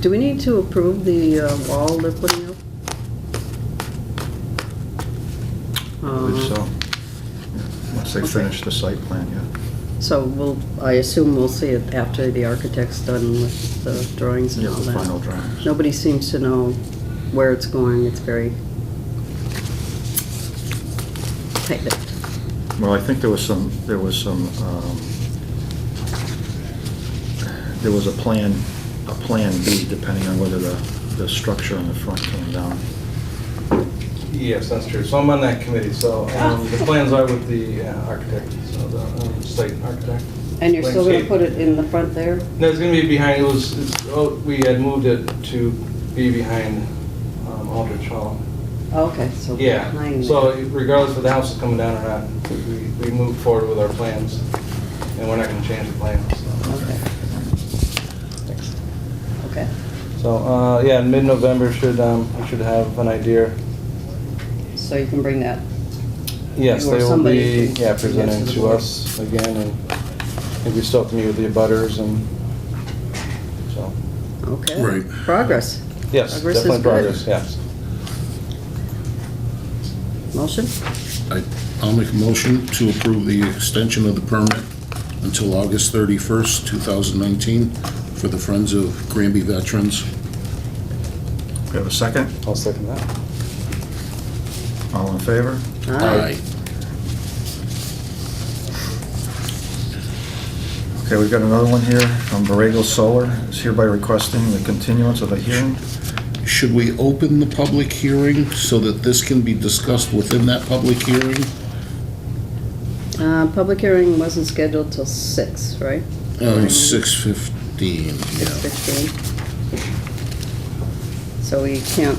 Do we need to approve the uh, wall they're putting up? I believe Uh, so. Once they Okay. finish the site plan, yeah. So we'll, I assume we'll see it after the architect's done with the drawings and Yeah, all the that. final drawings. Nobody seems to know where it's going, it's very tight-lipped. Well, I think there was some, there was some, um, there was a plan, a plan B, depending on whether the, the structure on the front came down. Yes, that's true. So I'm on that committee, so Oh. um, the plans are with the uh, architect, so the um, site architect. And you're still gonna Landscape. put it in the front there? No, it's gonna be behind, it was, it's- oh, we had moved it to be behind um, Aldrich Hall. Oh, Okay, so. Yeah, behind so there. regardless of the house is coming down or not, we we move forward with our plans, and we're not gonna change the plans. so. Okay. Okay. So, uh, yeah, in mid-November should, um, we should have an idea. So you can bring that. Yes, Or they will somebody be, can yeah, present to presenting the to board. us again, and I think we still have to meet with the abutters and, so, Okay. Right. Progress. yes, Progress is definitely good. progress, yes. Motion? I, I'll make a motion to approve the extension of the permit until August 31st, 2019, for the Friends of Granby Veterans. We have a second? I'll second that. All in favor? Aye. Okay, we've got another one here from Borrego Solar. Is hereby requesting the continuance of the hearing. Should we open the public hearing so that this can be discussed within that public hearing? Uh, Public hearing wasn't scheduled till six, right? Uh, 6:15, yeah. 6:15. So we can't,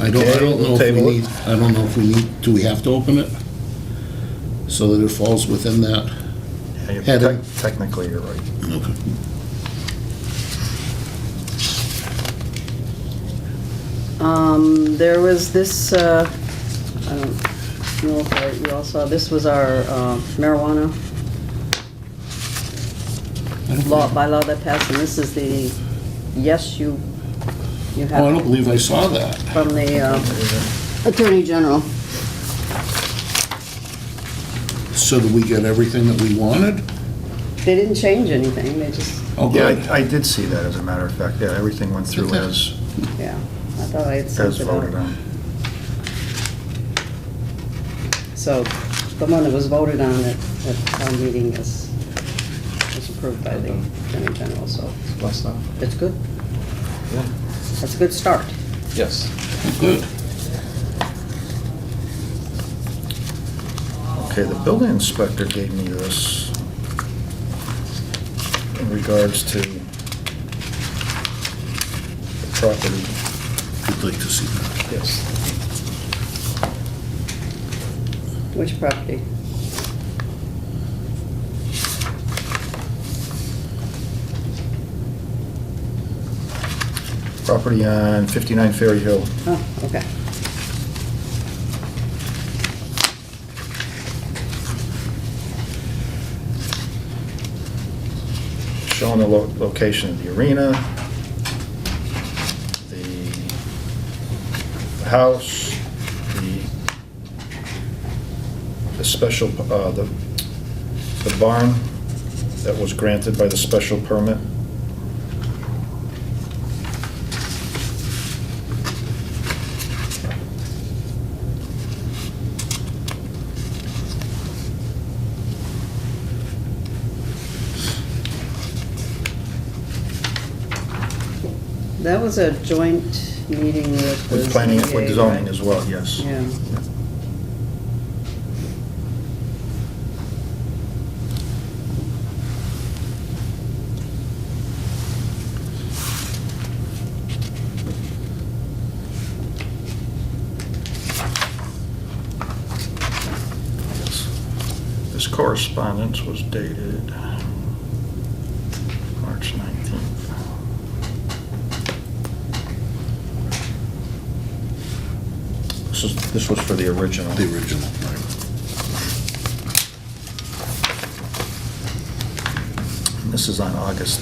I don't, I don't know if we Table it. need, I don't know if we need, do we have to open it? So that it falls within that? Yeah, you- Heather. tec- Technically, you're right. Okay. um, there was this, uh, I don't know if I- you all saw, this was our uh, marijuana law, Mm-hmm. bylaw that passed, and this is the, yes, you, you Oh, I have don't believe I saw that. from the uh, Attorney General. So did we get everything that we wanted? They didn't change anything, they just, Oh, Yeah, good. I- I did see that, as a matter of fact. Yeah, everything went through as, yeah, I thought I had sent as it voted out. on. So the one that was voted on at, at town meeting is, was approved by the Attorney General, so Last time? it's good. Yeah. That's a good start. Yes. Good. Okay, the building inspector gave me this in regards to the property. I'd like to see that. Yes. Which property? Property on 59 Ferry Hill. Oh, okay. showing the lo- location of the arena, the house, the, the special, uh, the, the barn that was granted by the special permit. That was a joint meeting with the With planning, with ZBA, zoning right? as well, yes. Yeah. This correspondence was dated March 19th. This is, this was for the original. The original, right. This is on August